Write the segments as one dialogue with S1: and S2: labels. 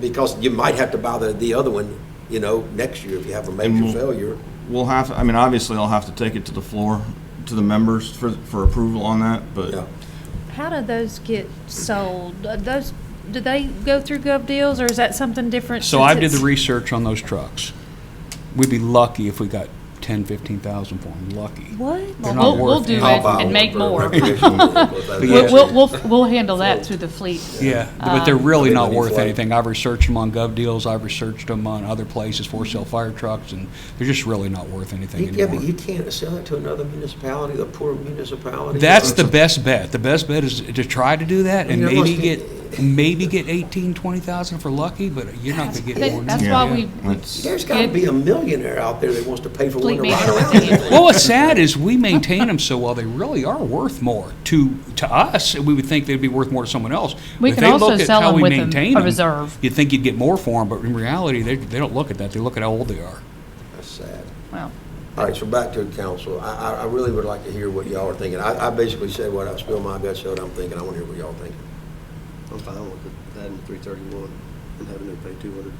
S1: Because you might have to buy the, the other one, you know, next year if you have a major
S2: we'll-
S1: failure.
S2: We'll have, I mean, obviously I'll have to take it to the floor, to the members for, for approval on that,
S1: Yeah.
S2: but
S3: How do those get sold? Are Those, do they go through gov deals, or is that something different?
S4: So I
S3: since
S4: did the
S3: it's-
S4: research on those trucks. We'd be lucky if we got ten, fifteen thousand for them, lucky.
S3: What?
S4: They're
S5: Well,
S4: not
S5: we'll, we'll
S4: worth
S5: do
S4: it.
S5: it
S1: I'll buy one
S5: and make
S1: for
S5: more.
S1: recreational vehicles. That's-
S4: Yeah.
S5: We'll, we'll, we'll, we'll handle that through the fleet.
S4: Yeah, but they're really
S1: Maybe
S4: not
S1: we
S4: worth
S1: fly.
S4: anything. I've researched them on gov deals, I've researched them on other places, for sale fire trucks, and they're just really not worth anything
S1: You- Yeah, but you
S4: anymore.
S1: can't sell it to another municipality, the poor municipality.
S4: That's the best bet. The best bet is to try to do that and
S1: You're
S4: maybe
S1: lucky.
S4: get, maybe get eighteen, twenty thousand for lucky, but you're not gonna get more. than
S5: That's
S4: that.
S5: why we
S2: it's,
S1: There's gotta be a millionaire out there that wants to pay for one
S5: fleet
S1: to
S5: meeting
S1: ride
S5: with
S1: around.
S5: the ambulance.
S4: Well, what's sad is we maintain them so well, they really are worth more to, to us. We would think they'd be worth more to someone else. But
S5: We
S4: if
S5: can
S4: they
S5: also
S4: look at
S5: sell
S4: how
S5: 'em
S4: we
S5: with 'em
S4: maintain
S5: a
S4: 'em,
S5: reserve.
S4: You'd think you'd get more for them, but in reality, they, they don't look at that. They look at how old they are.
S1: That's sad.
S5: Well,
S1: All right, so back to the council. I, I, I really would like to hear what y'all are thinking. I, I basically said what I spilled my guts out, I'm thinking, I wanna hear what y'all think.
S6: I'm fine with it, adding three thirty-one and having them pay two hundred.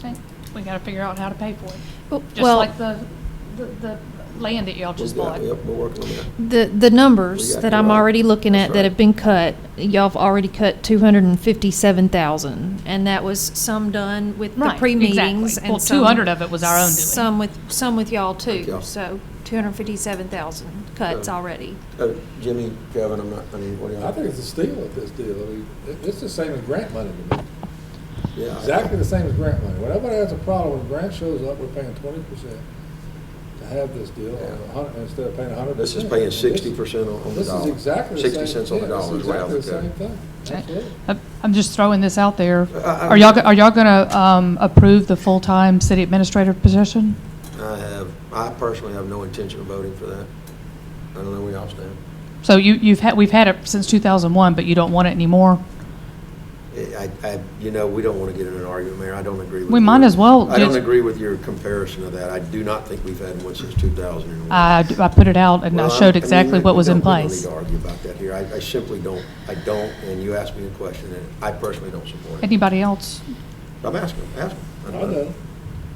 S5: okay, we gotta figure out how to pay for it. Just
S3: Well,
S5: like the, the, the land that y'all just
S1: We've
S5: bought.
S1: got- Yep, we're working on that.
S3: The, the numbers
S1: We got
S3: that
S1: you
S3: I'm
S1: right.
S3: already looking
S1: That's
S3: at that
S1: right.
S3: have been cut, y'all have already cut two hundred and fifty-seven thousand, and that was some done with the
S5: Right,
S3: pre-meetings.
S5: exactly.
S3: and
S5: Well,
S3: some-
S5: 200 of it was our own doing.
S3: Some with, some with y'all
S1: With
S3: too,
S1: y'all.
S3: so two hundred and fifty-seven thousand cuts
S1: Yeah.
S3: already.
S1: Uh, Jimmy, Kevin, I'm not, I mean, what do y'all?
S7: I think it's a steal at this deal. I mean, it- it's the same as grant money to me.
S1: Yeah.
S7: Exactly the same as grant money. When everybody has a problem, when grant shows up, we're paying twenty percent to have this deal, and a hundred, instead of paying a hundred
S1: This is
S7: percent.
S1: paying 60% on- on the
S7: This
S1: dollar.
S7: is exactly the same.
S1: 60 cents on the
S7: yeah, this
S1: dollar is
S7: is
S1: what I
S7: exactly the
S1: would
S7: same thing. Absolutely.
S5: I'm- I'm just throwing this out there.
S1: I- I-
S5: Are y'all, go- are y'all gonna, um, approve the full-time city administrator position?
S1: I have, I personally have no intention of voting for that. I don't know where y'all stand.
S5: So you, you've had, we've had it since two thousand one, but you don't want it anymore?
S1: I, I, you know, we don't want to get in an argument, Mayor. I don't agree with.
S5: We
S1: your-
S5: might as well
S1: I don't
S5: just-
S1: agree with your comparison of that. I do not think we've had one since 2001.
S5: I, I put it out and I
S1: Well,
S5: showed
S1: I mean,
S5: exactly
S1: we-
S5: what was in
S1: we don't-
S5: place.
S1: We don't need to argue about that here. I, I simply don't, I don't, and you asked me a question, and I personally don't support it.
S5: Anybody else?
S1: I'm asking, asking.
S7: I know.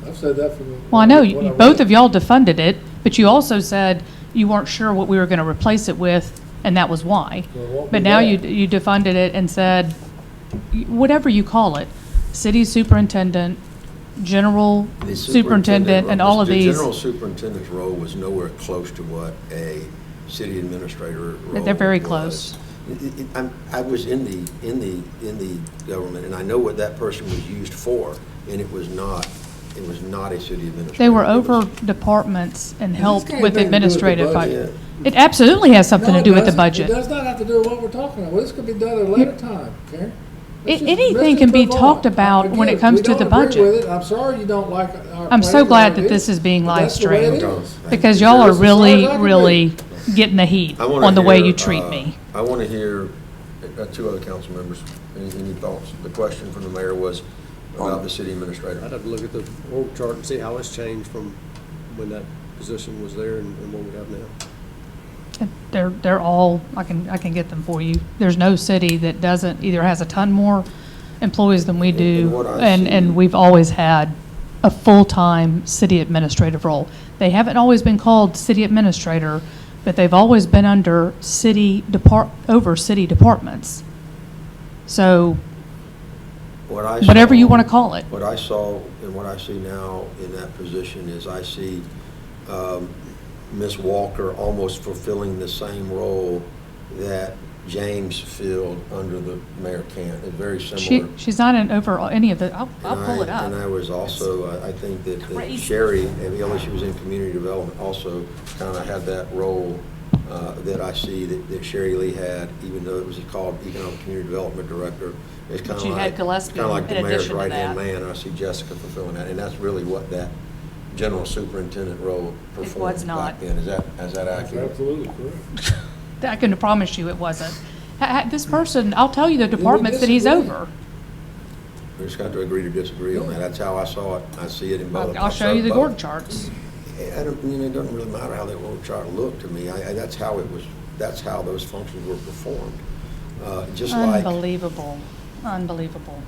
S7: I've said that from. the-
S5: Well, I know,
S7: when
S5: you-
S7: read
S5: both
S7: it.
S5: of y'all defunded it, but you also said you weren't sure what we were gonna replace it with, and that was why.
S7: Well, it won't
S5: But
S7: be
S5: now
S7: that.
S5: you, you defunded it and said, y- whatever you call it, city superintendent, general
S1: The
S5: superintendent, and
S1: role-
S5: all of
S1: the
S5: these,
S1: general superintendent's role was nowhere close to what a city administrator role
S5: they're very
S1: was.
S5: close.
S1: It- it- it- I'm- I was in the, in the, in the government, and I know what that person was used for, and it was not, it was not a city administrator.
S5: they were
S1: It was-
S5: over departments and helped with
S7: got nothing to do with the
S5: administrative.
S7: budget.
S5: fi- It absolutely has something
S7: No,
S5: to
S7: it
S5: do with the
S7: doesn't.
S5: budget.
S7: It does not have to do with what we're talking about. Well, this could be done at a later time, Karen. Let's
S5: A-
S7: just- let's
S5: anything
S7: just
S5: can be
S7: move on.
S5: talked about when it
S7: Again,
S5: comes
S7: we
S5: to the
S7: don't agree
S5: budget.
S7: with it. I'm sorry you don't like our.
S5: I'm so
S7: plan or
S5: glad that
S7: idea,
S5: this is being
S7: but that's the way it
S5: live-streamed.
S7: is.
S5: Because y'all are
S7: This is as far
S5: really,
S7: as I can
S5: really getting the heat
S1: I wanna
S5: on the way
S1: hear,
S5: you treat
S1: uh,
S5: me.
S1: I want to hear, uh, two other council members, any any thoughts? The question from the mayor was about the city administrator.
S6: I'd have to look at the org chart and see how it's changed from when that position was there and and what we have now.
S1: uh,
S5: They're, they're all, I can, I can get them for you. There's no city that doesn't, either has a ton more employees than we
S1: And
S5: do,
S1: what I
S5: and,
S1: see-
S5: and we've always had a full-time city administrative role. They haven't always been called city administrator, but they've always been under city depart, over city departments. So
S1: What I
S5: whatever you
S1: saw-
S5: want to call it.
S1: What I saw and what I see now in that position is I see um, Ms. Walker almost fulfilling the same role that James filled under the Mayor Cant, It's very
S5: She,
S1: similar.
S5: she's not in over any of the, I'll, I'll
S1: And
S5: pull it
S1: I- And I
S5: up.
S1: was also, uh, I- I think that that
S5: Crazy.
S1: Sherry, and although she was in community development, also kind of had that role uh, that I see that that Sherry Lee had, even though it was called Economic Community Development Director. It's kind of
S5: But
S1: like.
S5: you had Gillespie
S1: kinda like the
S5: in
S1: mayor's
S5: addition to
S1: right-hand
S5: that.
S1: man, and I see Jessica fulfilling that, and that's really what that general superintendent role
S5: was
S1: performed back
S5: not.
S1: then. Is that, is that
S7: That's
S1: accurate?
S7: Absolutely correct.
S5: I can promise you it wasn't. Ha- ha- This person, I'll tell you the
S7: we
S5: departments that he's
S7: disagree?
S5: over.
S1: We just got to agree to disagree on that. That's how I saw it. I see it in both.
S5: I'll I'll show you the
S1: both.
S5: org charts.
S1: I don't, you know, it doesn't really matter how that org chart looked to me. I, I, that's how it was, that's how those functions were performed. Uh, just like,
S5: Unbelievable, unbelievable.